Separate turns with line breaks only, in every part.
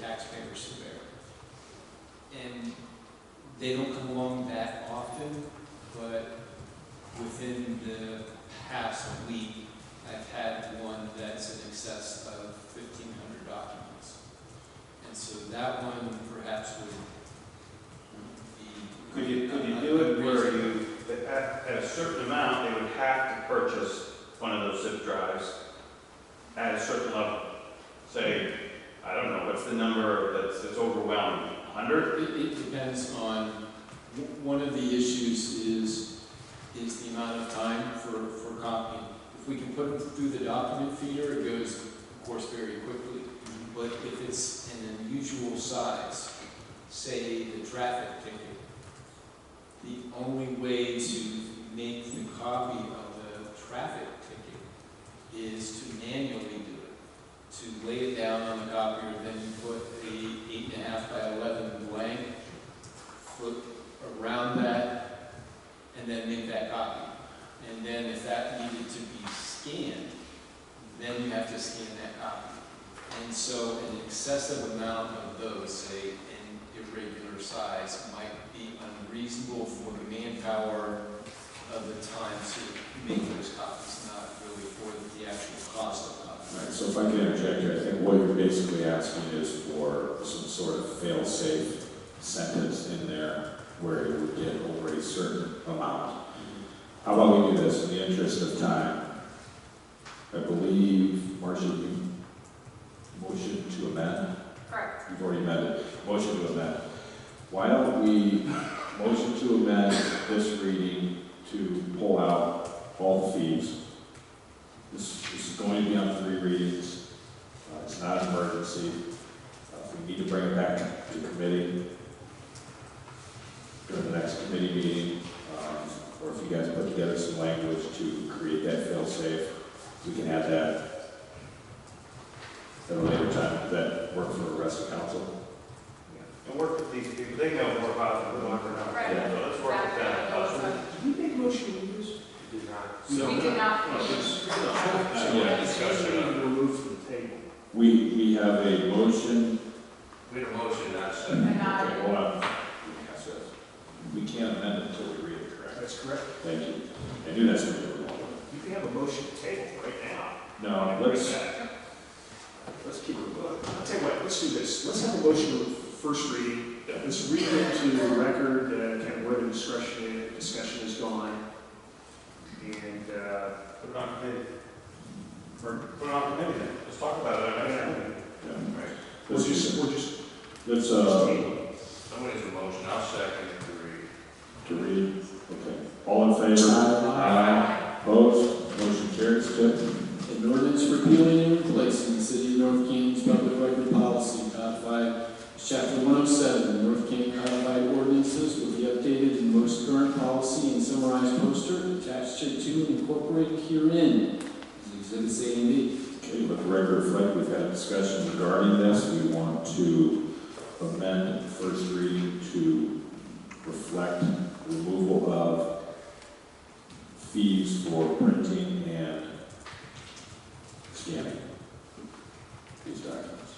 taxpayer surveyor. And they don't come along that often, but within the past week, I've had one that's in excess of fifteen hundred documents. And so that one perhaps would be.
Could you, could you do it where you, at, at a certain amount, they would have to purchase one of those zip drives at a certain level? Say, I don't know, what's the number that's, that's overwhelming, hundred?
It, it depends on, w- one of the issues is, is the amount of time for, for copying. If we can put it through the document feeder, it goes, of course, very quickly. But if it's an unusual size, say the traffic ticket, the only way to make the copy of the traffic ticket is to manually do it to lay it down on the copier, then you put the eight and a half by eleven blank, flip around that, and then make that copy. And then if that needed to be scanned, then you have to scan that copy. And so an excessive amount of those, say, in irregular size, might be unreasonable for the manpower of the time to make those copies, not really for the actual cost of copies.
Right, so if I can interject here, I think what you're basically asking is for some sort of fail-safe sentence in there where it would get over a certain amount. How about we do this, in the interest of time? I believe, Marcia, you motion to amend,
Correct.
you've already amended, motion to amend. Why don't we motion to amend this reading to pull out all the fees? This, this is going to be on three readings. Uh, it's not an emergency. Uh, we need to bring it back to committee during the next committee meeting. Um, or if you guys put together some language to create that fail-safe, we can add that at a later time. Does that work for the rest of council?
And work with these people, they know more about it than we do.
Right.
So let's work with them. Uh,
Did we make a motion to use?
we did not-
We
No.
did not.
No, it's- no.
Uh, yeah.
Discussion of-
Remove from the table.
We, we have a motion
We had a motion, not a
But
second.
not-
Okay, hold on. We can't amend it until we read it correctly.
That's correct.
Thank you. I knew that's what you were going with.
You can have a motion to table right now.
No, let's,
Let's keep it moving. I'll tell you what, let's do this. Let's have a motion of first reading. Let's read it to the record, uh, kind of where the discussion, discussion is gone. And, uh,
Put it on committee.
or-
Put it on committee then. Let's talk about it. I don't know.
we'll
let's
just,
just,
we'll just,
let's, uh,
Somebody's a motion, I'll second it to read.
to read, okay. All in favor? Aye. Opposed? Motion carries. Good.
An ordinance repealing and replacing the city of North Canton's public record policy codified as chapter one oh seven, North Canton codified ordinances with the updated and most current policy and summarized poster attached to and incorporated herein as exhibits A and B.
Okay, let the record reflect, we've had a discussion regarding this. We want to amend first reading to reflect removal of fees for printing and scanning these documents.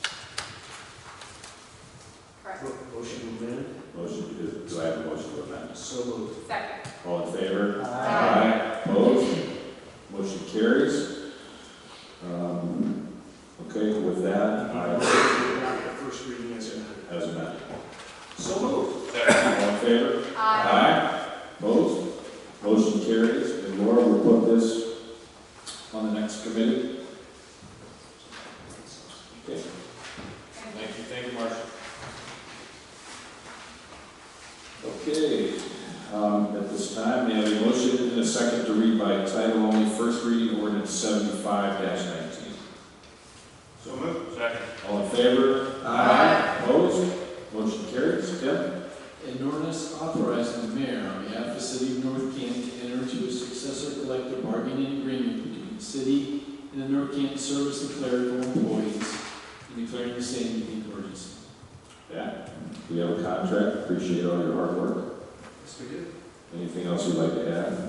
Correct.
mo- motion amended,
Motion, do- do I have a motion to amend?
so moved.
Second.
All in favor?
Aye.
Opposed? Motion carries. Um, Okay, with that, I,
Adopt the First reading as amended.
as amended.
So moved.
All in favor?
Aye.
Aye. Opposed? Motion carries. And Laura will put this on the next committee. Okay.
Thank you, thank you, Marcia.
Okay. Um, At this time, we have a motion and a second to read by title only, first reading ordinance seventy-five nineteen.
So moved. Second.
All in favor?
Aye.
Opposed? Motion carries. Tim?
An ordinance authorizing the mayor on behalf of the city of North Canton to enter into a successor collective bargaining agreement between the city and the North Canton service and clerical employees and declaring the same to be an emergency.
Yeah. We have a contract. Appreciate all your hard work.
Yes, we did.
Anything else you'd like to add?